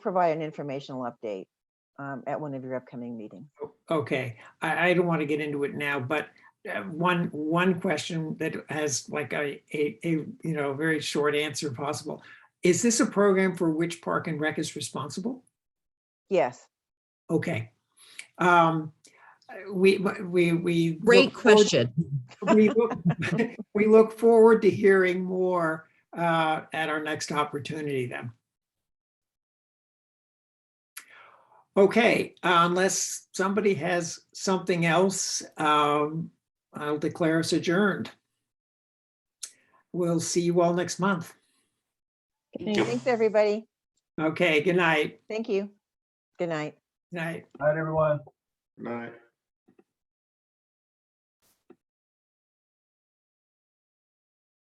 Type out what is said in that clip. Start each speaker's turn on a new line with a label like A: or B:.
A: provide an informational update um, at one of your upcoming meetings.
B: Okay, I, I don't want to get into it now, but uh, one, one question that has like a, a, a, you know, very short answer possible. Is this a program for which Park and Rec is responsible?
A: Yes,
B: Okay. Um, we, we, we. look
C: Great
B: forward-
C: question.
B: We look, we look forward to hearing more, uh, at our next opportunity then. Okay, unless somebody has something else, um, I'll declare us adjourned. We'll see you all next month.
D: you.
A: thanks, everybody.
B: Okay, good night.
A: Thank you. Good night.
B: Night.
E: Night, everyone.
D: Night.